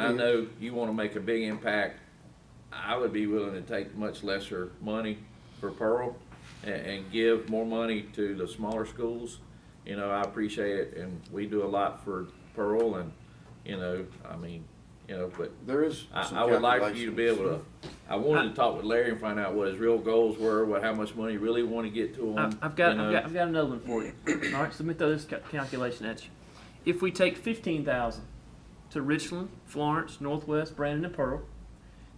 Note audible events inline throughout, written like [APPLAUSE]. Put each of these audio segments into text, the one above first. And I know you wanna make a big impact. I would be willing to take much lesser money for Pearl and, and give more money to the smaller schools. You know, I appreciate it and we do a lot for Pearl and, you know, I mean, you know, but There is some I, I would like for you to be able calculations. to, I wanted to talk with Larry and find out what his real goals were, what, how much money you really wanna get to I- them. Uh, I've got, I've got, I've got another one for you. All right, so let me throw this ca- calculation at you. If we take fifteen thousand to Richland, Florence, Northwest, Brandon, and Pearl,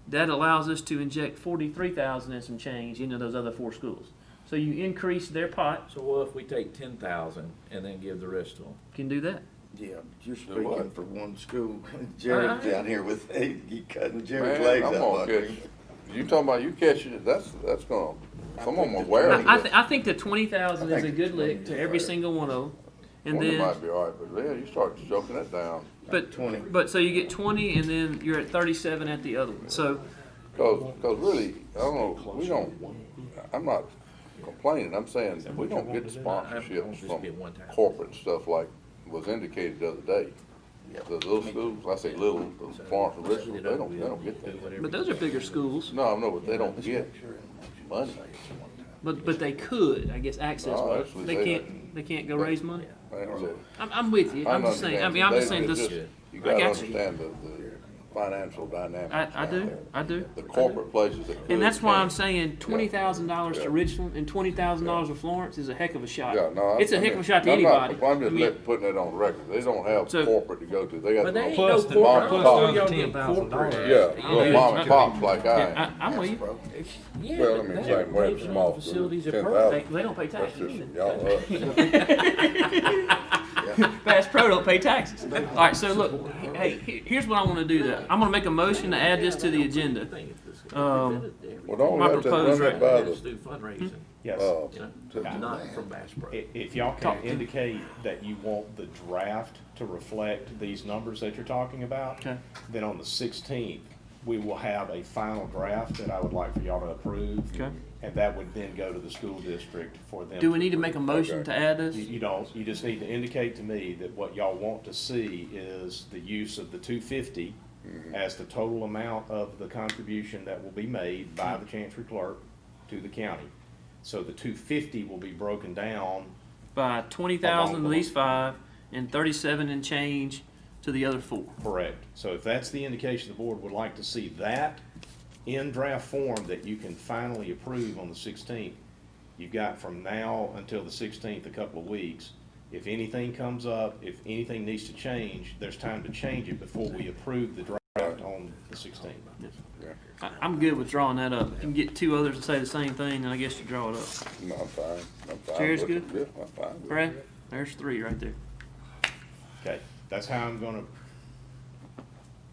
that allows us to inject forty-three thousand and some change into those other four schools. So you increase their pot, So what if we take ten thousand and then give the rest to them? can do that. Yeah, you're speaking what? for one school. [LAUGHS] Jared's I- down here with, [LAUGHS] he cutting Jared's Man, legs I'm up. gonna buddy. catch, you talking about you catching it, that's, that's gonna, someone gonna wear it. I, I, th- I think the twenty thousand I is a think good lick 20 to is every fair. single one of them. And Wonder then, might be all right, but yeah, you start choking it down, but, 20. but, so you get twenty and then you're at thirty-seven at the other one. So cause, cause really, I don't know, we don't, I'm not complaining, I'm saying, we don't get sponsorships from corporate stuff like was indicated the other day. The little schools, I say little, the Florence and Richmond, they don't, they don't get that. But those are bigger schools, No, I know, but they don't get money, but but they could, I guess, access Oh, wise. actually, They they- can't they can't go raise money. They don't get- I'm, I'm with you. I'm just saying. I mean, I'm just saying this. You I gotta got you. understand the, the financial dynamics. I, I out do. there. I do. The corporate places that could. And that's why I'm can't. saying twenty thousand dollars Yeah. to Richland and twenty thousand dollars to Florence is a heck of a shot. Yeah, no. I- it's a I heck of a mean, shot to I'm not- anybody. I'm I just mean, let- putting it on record. They don't have So- corporate to go to. They got. but the they ain't little- no Plus the- corporate. plus I don't the know y'all get $10,000 corporate. Yeah, I little mean, mom and it's- pops like I I, am. I'm with you. Bro, Yeah, Well, I but mean, they- same way they it's run small, facilities are 10,000. pro- they, they don't pay That's taxes. just either. y'all uh, up. [LAUGHS] Bass Pro don't pay taxes. All right, so look, hey, he- here's what I want to do. Though I'm going to make a motion to add this to the agenda. Um, Well, don't we My have to proposed run it by the, do fundraising, Yes, uh, you know, to- not from Bass Pro. Hmm? i- if y'all can indicate that you want the draft to reflect these numbers that you're talking about, Okay. then on the sixteenth, we will have a final draft that I would like for y'all to approve. Okay. And that would then go to the school district for them. do we need to make a motion to add this? You, you don't, you just need to indicate to me that what y'all want to see is the use of the two fifty as the total amount of the contribution that will be made by the chancery clerk to the county. So the two fifty will be broken down By twenty thousand to these five and thirty-seven and change to the other four. Correct. So if that's the indication the board would like to see that in draft form that you can finally approve on the sixteenth, you've got from now until the sixteenth, a couple of weeks. If anything comes up, if anything needs to change, there's time to change it before we approve the draft on the sixteenth. I, I'm good with drawing that up. If you can get two others to say the same thing, then I guess you draw it up. No, I'm fine. I'm fine. Chair's with it. good? Yeah, I'm fine. with it. Brad, there's three right there. Okay, that's how I'm gonna,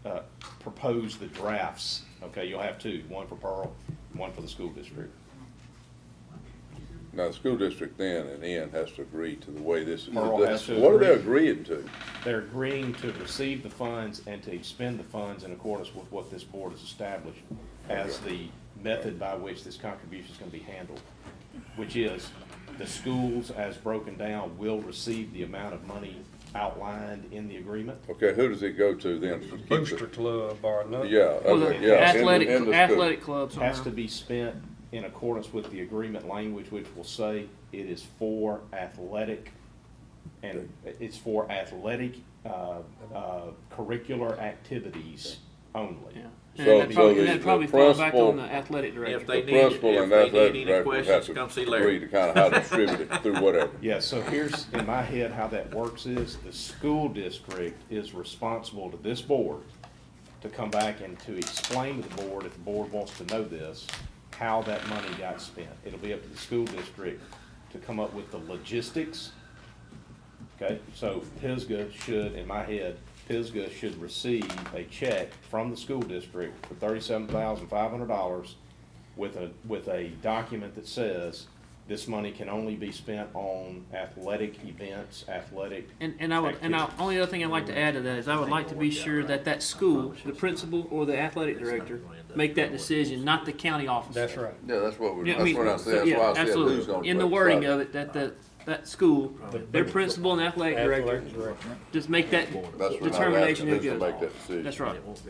uh, propose the drafts. Okay, you'll have two, one for Pearl, one for the school district. Now, the school district then and N has to agree to the way this is. Pearl has to What are they agree. agreeing to? They're agreeing to receive the funds and to expend the funds in accordance with what this board has established as the method by which this contribution is gonna be handled, which is the schools, as broken down, will receive the amount of money outlined in the agreement. Okay, who does it go to then? to keep the- Booster Club or nothing. Uh, Yeah, Well, okay, the yeah. in the- athletic, in the school. athletic clubs. Has to around. be spent in accordance with the agreement language, which will say it is for athletic, and it's for athletic, uh, uh, curricular activities only. Yeah. So- And that'd probably, so the- and that'd the probably fall back principal- on the athletic director. If they The need- principal if and they need athletic any director would have questions, to come see Larry. Agree to kind [LAUGHS] of how to distribute it through whatever. Yeah, so here's, in my head, how that works is, the school district is responsible to this board to come back and to explain to the board, if the board wants to know this, how that money got spent. It'll be up to the school district to come up with the logistics. Okay, so Pisgah should, in my head, Pisgah should receive a check from the school district for thirty-seven thousand five hundred dollars with a, with a document that says this money can only be spent on athletic events, athletic. And, and I would, and I, activities. only other thing I'd like to add to that is I would like to be sure that that school, the principal or the athletic director, make that decision, not the county office. That's right. Yeah, that's what we, Yeah, I that's mean, what so, I said, that's yeah, why I said who's absolutely. gonna. In the wording of it, that the that school, their principal and athletic director, Athletic director. just make that That's what I'm asking, determination who is to goes. make that decision. That's right.